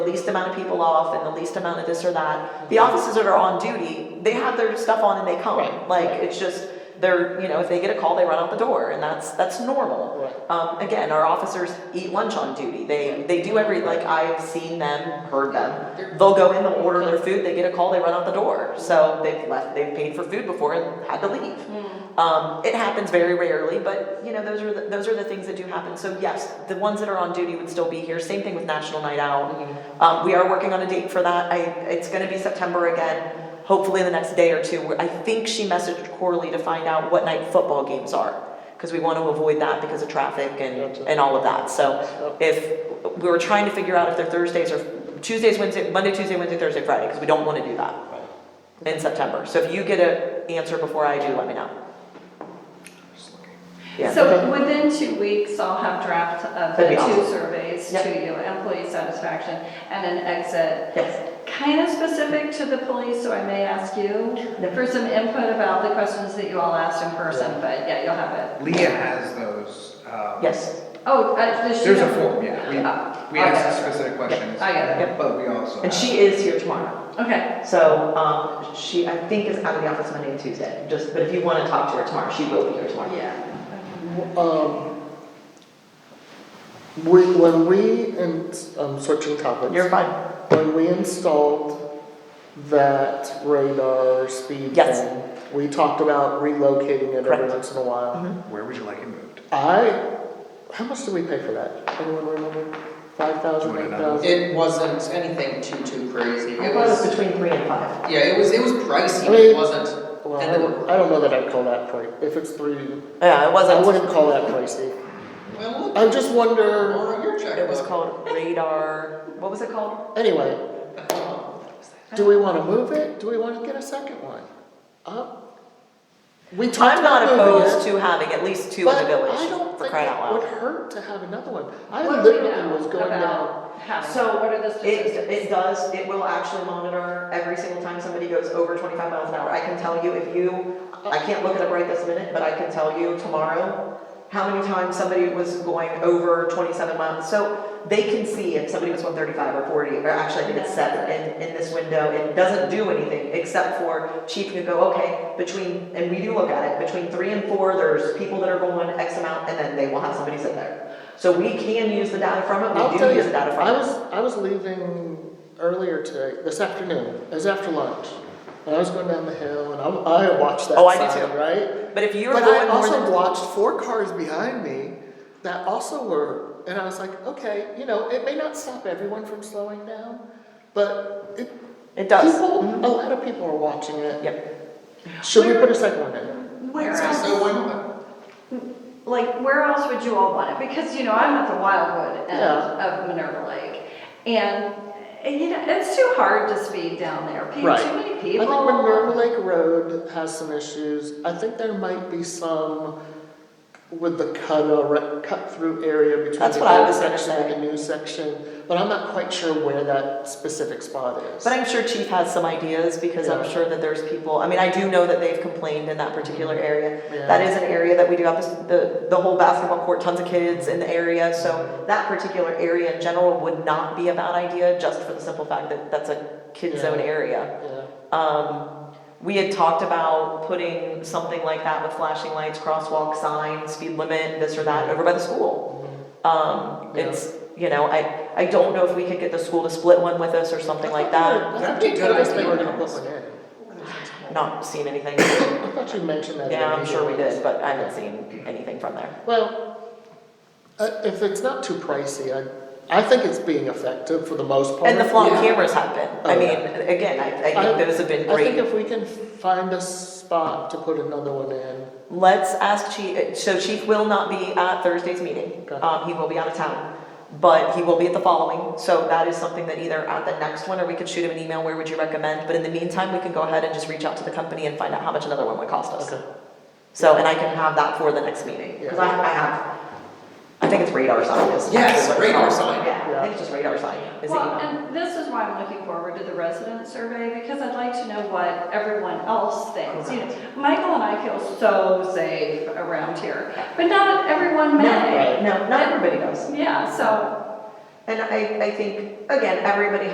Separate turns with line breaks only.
the least amount of people off and the least amount of this or that. The officers that are on duty, they have their stuff on and they come.
Right.
Like, it's just, they're, you know, if they get a call, they run out the door and that's, that's normal.
Right.
Um, again, our officers eat lunch on duty. They, they do every, like, I've seen them, heard them. They'll go in, they'll order their food, they get a call, they run out the door. So they've left, they've paid for food before and had to leave.
Hmm.
Um, it happens very rarely, but you know, those are, the- those are the things that do happen. So yes, the ones that are on duty would still be here. Same thing with National Night Out. Um, we are working on a date for that. I, it's gonna be September again, hopefully in the next day or two. I think she messaged Corley to find out what night football games are. Cause we wanna avoid that because of traffic and,
Gotcha.
and all of that. So if, we were trying to figure out if they're Thursdays or Tuesdays, Wednesday, Monday, Tuesday, Wednesday, Thursday, Friday, cause we don't wanna do that in September. So if you get an answer before I do, let me know. Yeah.
So within two weeks, I'll have draft of
That'd
the
be
two
awesome.
surveys to
Yep.
you, employee satisfaction and an exit.
Yes.
Kind of specific to the police, so I may ask you
Yep.
for some input about the questions that you all asked in person, but yeah, you'll have it.
Leah has those. um,
Yes,
Oh, uh, does she?
There's a
have-
form, yeah.
Oh,
We, we
okay.
ask specific questions.
I got
it.
But we also.
and
ask-
she is here tomorrow.
Okay,
So, um, she, I think is out of the office Monday and Tuesday, just, but if you wanna talk to her tomorrow, she will be here tomorrow.
yeah.
Um, we, when we, and I'm switching topics.
You're fine.
When we installed that radar speed
Yes.
thing, we talked about relocating it every
Correct. Mm-hmm.
once in a while.
Where would you like it moved?
I, how much did we pay for that? Anyone remember? Five thousand,
Twenty
eight
dollars.
thousand?
It wasn't anything too, too crazy.
I
It
thought it was
was,
between three and five.
yeah, it was, it was pricey,
I
but it
mean-
wasn't.
Well,
end
I
of the
don't, I don't know that I'd call that price, if it's three,
Yeah, it
I
wasn't,
wouldn't call that pricey.
Well, look,
I just wonder,
borrow your
it was
checkbook.
called radar, what was it called?
anyway, do we wanna move it? Do we wanna get a second one? Up? We talked
I'm not
about moving it.
opposed to having at least two in the
But I
village,
don't
for
think
crying out
it would
loud.
hurt to have another one. I
What do we know
literally was going down.
about how-
So,
what are the
It,
statistics?
it does, it will actually monitor every single time somebody goes over twenty-five miles an hour. I can tell you if you, I can't look it up right this minute, but I can tell you tomorrow how many times somebody was going over twenty-seven miles. So they can see if somebody was one thirty-five or forty, or actually I think it's seven in, in this window. It doesn't do anything except for chief can go, okay, between, and we do look at it, between three and four, there's people that are going X amount, and then they will have somebody sit there. So we can use the data from it,
I'll
we do
tell you,
use the data from it.
I was, I was leaving earlier today, this afternoon, it was after lunch. And I was going down the hill and I'm, I watched that
Oh, I do
sign,
too.
right?
But if you're
But I
going more than
also watched four cars behind me that also were, and I was like, okay, you know, it may not stop everyone from slowing down, but it,
it does. Mm-hmm.
people, a lot of people are watching it.
Yep.
Should we put a second one in?
Where
So,
else?
so when,
like where else would you all want it? Because you know I'm at the Wildwood end
Yeah.
of Minerva Lake, and uh, you know it's too hard to speed down there. People,
Right.
Too many
I
people.
think Minerva Lake Road has some issues. I think there might be some with the cut, or- cut through area between
That's
the
what I
old
was gonna
section and the new section, but I'm not quite sure where that specific spot is.
But I'm sure Chief has some ideas because I'm
Yeah.
sure that there's people, I mean, I do know that they've complained in that particular area.
Yeah.
That is an area that we do have this- the, the whole basketball court, tons of kids in the area. So that particular area in general would not be a bad idea just for the simple fact that that's a kid
Yeah.
zone area.
Yeah.
Um, we had talked about putting something like that with flashing lights, crosswalk signs, speed limit, this or that over by the school. Um,
Mm-hmm. Yeah.
it's, you know, I, I don't know if we could get the school to split one with us or something like that.
I
That'd
think
be
you
a good
told us they
idea.
were gonna put one in.
Not seen anything.
I thought you mentioned that. in
Yeah,
the
I'm sure we
meeting.
did, but I haven't seen anything from there.
Well, uh, if it's not too pricey, I, I think it's being effective for the most part.
And the flop
Yeah.
cameras have been. I
Oh,
mean,
yeah.
again, I, I think those have been
I think
great.
if we can find a spot to put another one in,
Let's ask Chief, so Chief will not be at Thursday's meeting.
Okay.
Um, he will be out of town. But he will be at the following, so that is something that either at the next one, or we could shoot him an email, where would you recommend? But in the meantime, we can go ahead and just reach out to the company and find out how much another one would cost us.
okay.
So, and I can have that for the next meeting, because I, I have, I think it's radar sign is.
Yes,
actually what it's
radar
called.
sign.
Yeah, I think it's just radar sign, is the
Well,
email.
and this is why I'm looking forward to the resident survey because I'd like to know what everyone else thinks. You know, Michael and I feel so safe around here, but not
No,
everyone may.
No, not everybody knows.
Yeah. So
And I, I think, again, everybody